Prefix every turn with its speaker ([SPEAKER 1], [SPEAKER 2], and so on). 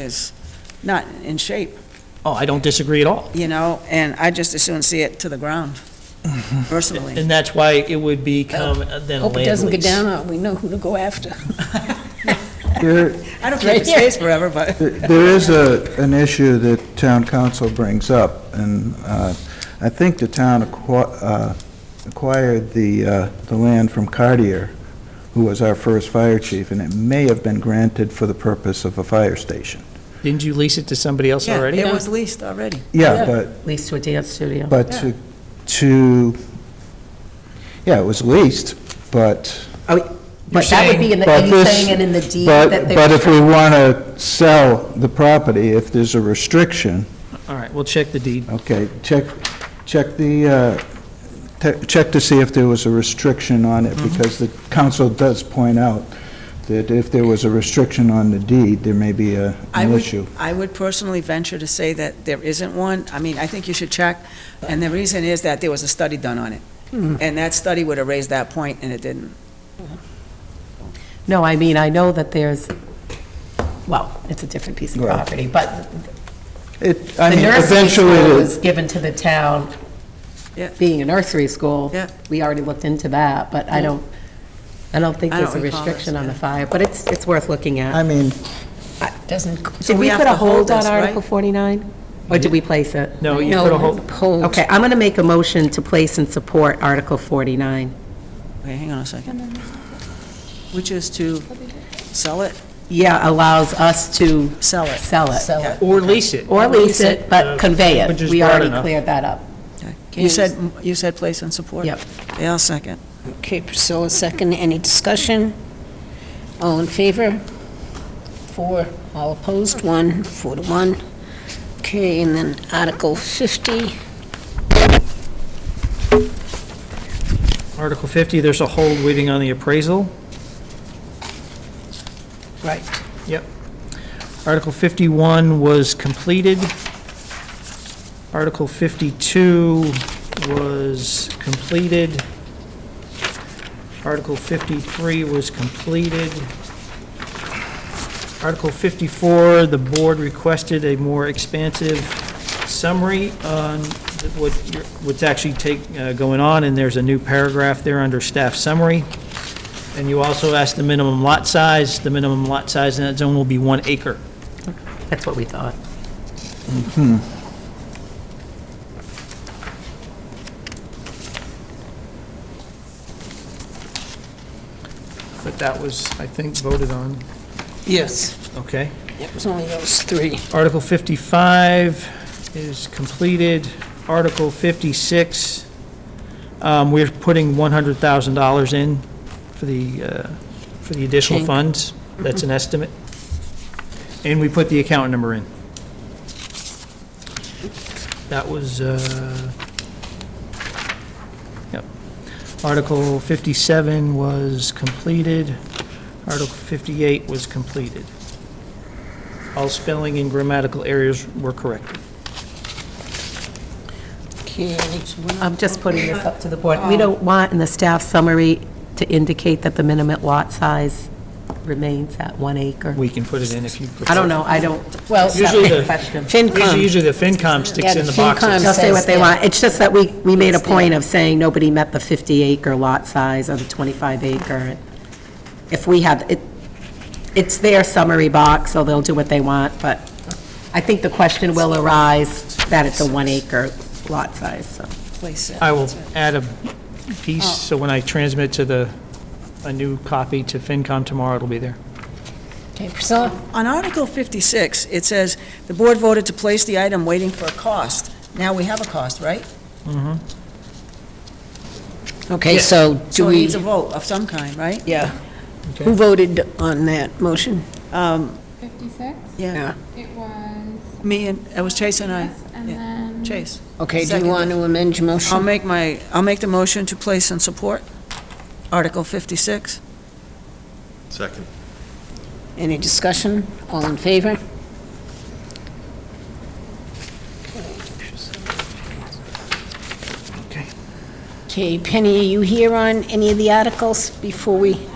[SPEAKER 1] is not in shape,
[SPEAKER 2] Oh, I don't disagree at all.
[SPEAKER 1] you know, and I just as soon see it to the ground personally.
[SPEAKER 2] And that's why it would become then a
[SPEAKER 3] Hope it
[SPEAKER 2] land
[SPEAKER 3] doesn't go
[SPEAKER 2] lease.
[SPEAKER 3] down, on. we know who to go after.
[SPEAKER 4] There,
[SPEAKER 1] I don't care if it stays forever, but
[SPEAKER 4] there is a, an issue that town council brings up, and uh, I think the town acqui- uh, acquired the, uh, the land from Cartier, who was our first fire chief, and it may have been granted for the purpose of a fire station.
[SPEAKER 2] Didn't you lease it to somebody else
[SPEAKER 1] yeah,
[SPEAKER 2] already?
[SPEAKER 1] it was leased already.
[SPEAKER 4] Yeah, but,
[SPEAKER 5] leased to a dance studio.
[SPEAKER 4] but to, to, yeah, it was leased, but,
[SPEAKER 5] Oh, But that would be in the,
[SPEAKER 4] But
[SPEAKER 5] are you
[SPEAKER 4] this-
[SPEAKER 5] saying it in the deed that
[SPEAKER 4] but,
[SPEAKER 5] they
[SPEAKER 4] but if we want to sell the property, if there's a restriction,
[SPEAKER 2] All right, we'll check the deed.
[SPEAKER 4] Okay, check, check the, uh, te- check to see if there was a restriction on it,
[SPEAKER 1] Mm-hmm.
[SPEAKER 4] because the council does point out that if there was a restriction on the deed, there may be a-
[SPEAKER 1] I
[SPEAKER 4] an
[SPEAKER 1] would-
[SPEAKER 4] issue.
[SPEAKER 1] I would personally venture to say that there isn't one. I mean, I think you should check. And the reason is that there was a study done on it. And that study would have raised that point, and it didn't.
[SPEAKER 5] No, I mean, I know that there's, well, it's a different piece of
[SPEAKER 4] Well,
[SPEAKER 5] property, but
[SPEAKER 4] It,
[SPEAKER 5] the
[SPEAKER 4] I mean,
[SPEAKER 5] nursery
[SPEAKER 4] eventually,
[SPEAKER 5] school
[SPEAKER 4] it-
[SPEAKER 5] was given to the town,
[SPEAKER 1] Yeah.
[SPEAKER 5] being a nursery school.
[SPEAKER 1] Yeah.
[SPEAKER 5] We already looked into that, but I don't, I don't think
[SPEAKER 1] I
[SPEAKER 5] there's a
[SPEAKER 1] don't recall this,
[SPEAKER 5] restriction on the
[SPEAKER 1] yeah.
[SPEAKER 5] fire, but it's, it's worth looking
[SPEAKER 4] I
[SPEAKER 5] at.
[SPEAKER 4] mean,
[SPEAKER 5] Doesn't,
[SPEAKER 1] So
[SPEAKER 5] did
[SPEAKER 1] we
[SPEAKER 5] we
[SPEAKER 1] have
[SPEAKER 5] put a
[SPEAKER 1] to hold
[SPEAKER 5] hold on
[SPEAKER 1] this, right?
[SPEAKER 5] Article 49? Or did we place it?
[SPEAKER 2] No, you
[SPEAKER 3] No,
[SPEAKER 2] put a whole,
[SPEAKER 3] hold.
[SPEAKER 5] Okay, I'm going to make a motion to place and support Article 49.
[SPEAKER 1] Okay, hang on a second. Which is to sell it,
[SPEAKER 5] Yeah, allows us to
[SPEAKER 1] sell it.
[SPEAKER 5] sell it.
[SPEAKER 3] So,
[SPEAKER 2] or lease it.
[SPEAKER 5] Or lease it,
[SPEAKER 2] Uh,
[SPEAKER 5] but convey
[SPEAKER 2] which is
[SPEAKER 5] it. We
[SPEAKER 2] broad
[SPEAKER 5] already
[SPEAKER 2] enough.
[SPEAKER 5] cleared that up.
[SPEAKER 1] Okay. You said, you said place and support?
[SPEAKER 5] Yep.
[SPEAKER 1] Yeah, I'll second.
[SPEAKER 3] okay, Priscilla, second, any discussion? All in favor? Four, all opposed, one, four to one. Okay, and then Article 50,
[SPEAKER 2] Article 50, there's a hold waiting on the appraisal.
[SPEAKER 3] right.
[SPEAKER 2] Yep. Article 51 was completed. Article 52 was completed. Article 53 was completed. Article 54, the board requested a more expansive summary on what, what's actually take, uh, going on, and there's a new paragraph there under staff summary. And you also asked the minimum lot size. The minimum lot size in that zone will be one acre.
[SPEAKER 5] That's what we thought.
[SPEAKER 2] But that was, I think, voted on.
[SPEAKER 3] Yes.
[SPEAKER 2] Okay.
[SPEAKER 3] It was only those three.
[SPEAKER 2] Article 55 is completed. Article 56, um, we're putting $100,000 in for the, uh, for the additional
[SPEAKER 3] Chink.
[SPEAKER 2] funds. That's an estimate. And we put the account number in. That was, uh, yep. Article 57 was completed. Article 58 was completed. All spelling and grammatical errors were corrected.
[SPEAKER 3] Okay,
[SPEAKER 5] I'm just putting this up to the board. We don't want in the staff summary to indicate that the minimum lot size remains at one acre.
[SPEAKER 2] We can put it in if you prefer.
[SPEAKER 5] I don't know, I don't, well, that's
[SPEAKER 2] Usually
[SPEAKER 5] a
[SPEAKER 2] the-
[SPEAKER 5] question.
[SPEAKER 2] Usually
[SPEAKER 3] FinCom,
[SPEAKER 2] usually the FinCom sticks
[SPEAKER 3] Yeah,
[SPEAKER 2] in the
[SPEAKER 3] the FinCom.
[SPEAKER 2] boxes.
[SPEAKER 5] They'll say what they
[SPEAKER 3] says,
[SPEAKER 5] want. It's just that we, we made a
[SPEAKER 3] It's
[SPEAKER 5] point of saying nobody met the 50 acre lot size or the 25 acre. If we have, it, it's their summary box, so they'll do what they want, but I think the question will arise that it's a one acre lot size, so.
[SPEAKER 1] Place it.
[SPEAKER 2] I will add a piece, so when I transmit to the, a new copy to FinCom tomorrow, it'll be there.
[SPEAKER 3] okay, Priscilla,
[SPEAKER 1] On Article 56, it says, "The board voted to place the item waiting for a cost." Now we have a cost, right?
[SPEAKER 3] okay, so do
[SPEAKER 1] So it
[SPEAKER 3] we,
[SPEAKER 1] needs a vote of some kind, right?
[SPEAKER 3] yeah. Who voted on that motion?
[SPEAKER 1] Um,
[SPEAKER 6] 56.
[SPEAKER 1] Yeah,
[SPEAKER 6] It was
[SPEAKER 1] me and, it was Chase and I,
[SPEAKER 6] us and
[SPEAKER 1] yeah.
[SPEAKER 6] then.
[SPEAKER 1] Chase.
[SPEAKER 3] Okay, do you
[SPEAKER 1] Second.
[SPEAKER 3] want to amend your
[SPEAKER 1] I'll
[SPEAKER 3] motion?
[SPEAKER 1] make my, I'll make the motion to place and support Article 56.
[SPEAKER 7] Second.
[SPEAKER 3] Any discussion? All in favor?
[SPEAKER 2] Okay.
[SPEAKER 3] Okay, Penny, are you here on any of the articles before we